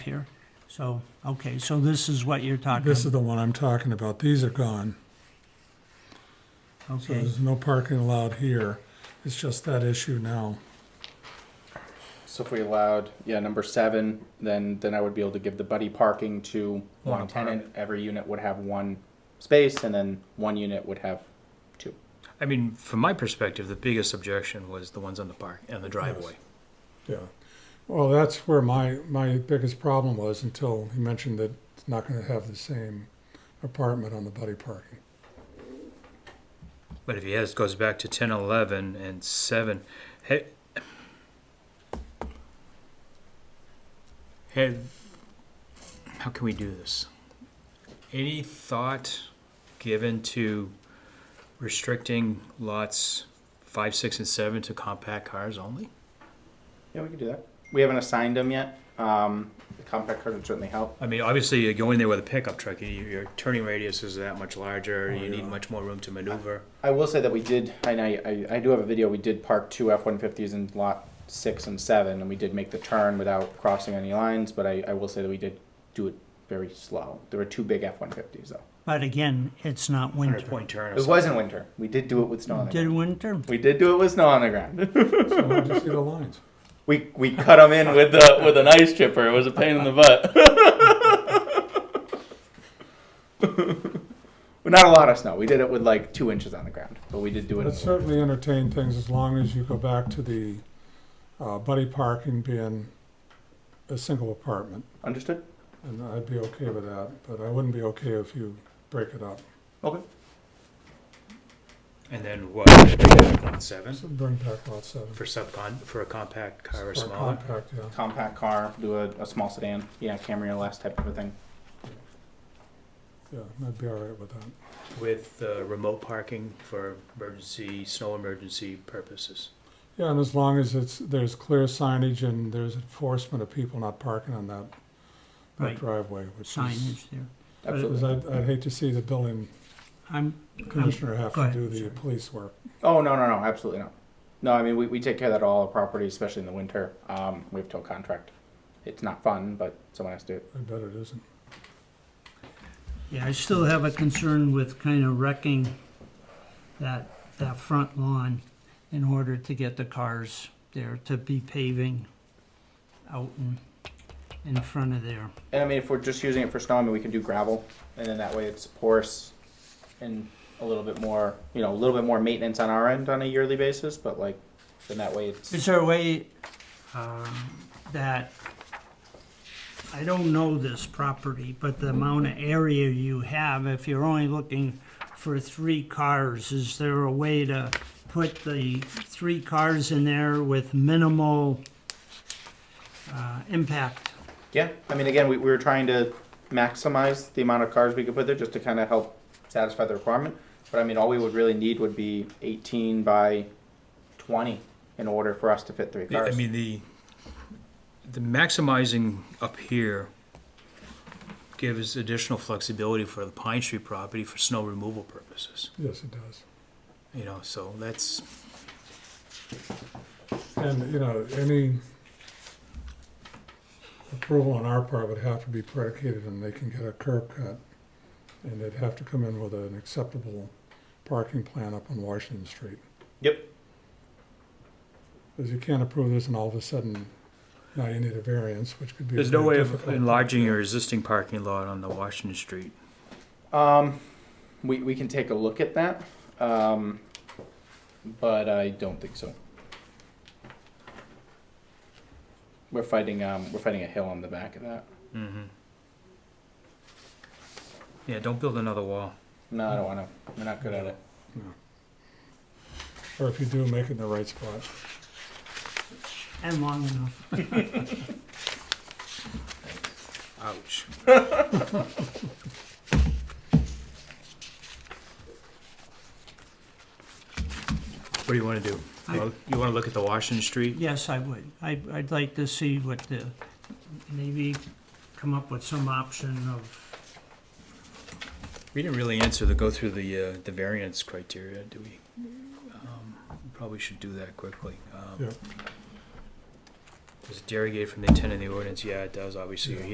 here. So, okay, so this is what you're talking This is about. the one I'm talking about. These are gone. So Okay, there's no parking allowed here. It's just that issue now. So if we allowed, yeah, number seven, then, then I would be able to give the buddy parking to one tenant. Every unit would have one space and then one unit would have two. I mean, from my perspective, the biggest objection was the ones on the park and the driveway. Yeah. Well, that's where my, my biggest problem was until he mentioned that it's not gonna have the same apartment on the buddy parking. But if he has goes back to 10, 11, and seven, ha- have how can we do this? Any thought given to restricting lots five, six, and seven to compact cars only? Yeah, we could do that. We haven't assigned them yet. Um, the compact card would certainly help. I mean, obviously, you go in there with a pickup truck. you- Your turning radius is that much larger. Oh, you yeah. need much more room to maneuver. I will say that we did, and I, I, I do have a video, we did park two F-150s in lot six and seven, and we did make the turn without crossing any lines, but I, I will say that we did do it very slow. There were two big F-150s though. but again, it's not Hundred winter. point turn. or It wasn't winter. We did do it with snow on the Did ground. winter? We did do it with snow on the ground. So I just see the lines. We we cut them in with the with an ice chipper. It was a pain in the butt. Well, Not a lot of snow. We did it with like two inches on the ground, but we did do it. But in it the winter. certainly entertain things as long as you go back to the, uh, buddy parking being a single apartment. Understood? And I'd be okay with that, but I wouldn't be okay if you break it up. Okay. And then what? Lot Seven So Bring back lot seven. for subcon for a compact car or Or smaller. compact, yeah. Compact car, do a, a small sedan, yeah, Camry less type of a thing. Yeah, I'd be all right with that. with uh, remote parking for emergency, snow emergency purposes. Yeah, and as long as it's, there's clear signage and there's enforcement of people not parking on that, Right. that driveway, which is. Signage there. Because Absolutely. I'd, I'd hate to see the building I'm, commissioner have Um, go to ahead, do the sorry. police work. Oh no no no, absolutely not. No, I mean we, we take care of that all our properties, especially in the winter. Um, we have to a contract. It's not fun, but someone has to do it. I bet it isn't. yeah, I still have a concern with kind of wrecking that, that front lawn in order to get the cars there to be paving out in, in front of there. And I mean, if we're just using it for snow, I mean, we can do gravel, and then that way it's porous and a little bit more, you know, a little bit more maintenance on our end on a yearly basis. But like, then that way it's Is there a way um, that, I don't know this property, but the amount of area you have, if you're only looking for three cars, is there a way to put the three cars in there with minimal uh, impact? yeah. I mean, again, we, we were trying to maximize the amount of cars we could put there just to kind of help satisfy the requirement. But I mean, all we would really need would be 18 by 20 in order for us to fit three The- I cars. mean, the, the maximizing up here gives additional flexibility for the Pine Street property for snow removal purposes, Yes, it does. you know, so that's, And, you know, any approval on our part would have to be predicated and they can get a curb cut. And they'd have to come in with an acceptable parking plan up on Washington Street. yep. Because you can't approve this and all of a sudden, now you need a variance, which could be. there's no very way of difficult. enlarging your existing parking lot on the Washington Street. Um, we we can take a look at that. Um, but I don't think so. We're fighting um we're fighting a hill on the back of that. Mm-hmm. Yeah, don't build another wall. No, I don't want to. We're not good at it. Or if you do, make it in the right spot. And long enough. Ouch. What do you wanna do? I- Well, You wanna look at the Washington Street? Yes, I would. I, I'd like to see what the, maybe come up with some option of, We didn't really answer the, go through the, uh, the variance criteria, do we? Um, we Probably should do that quickly. Um, Yeah. Does it derogate from the intent of the ordinance? Yeah, it does, obviously, Yeah.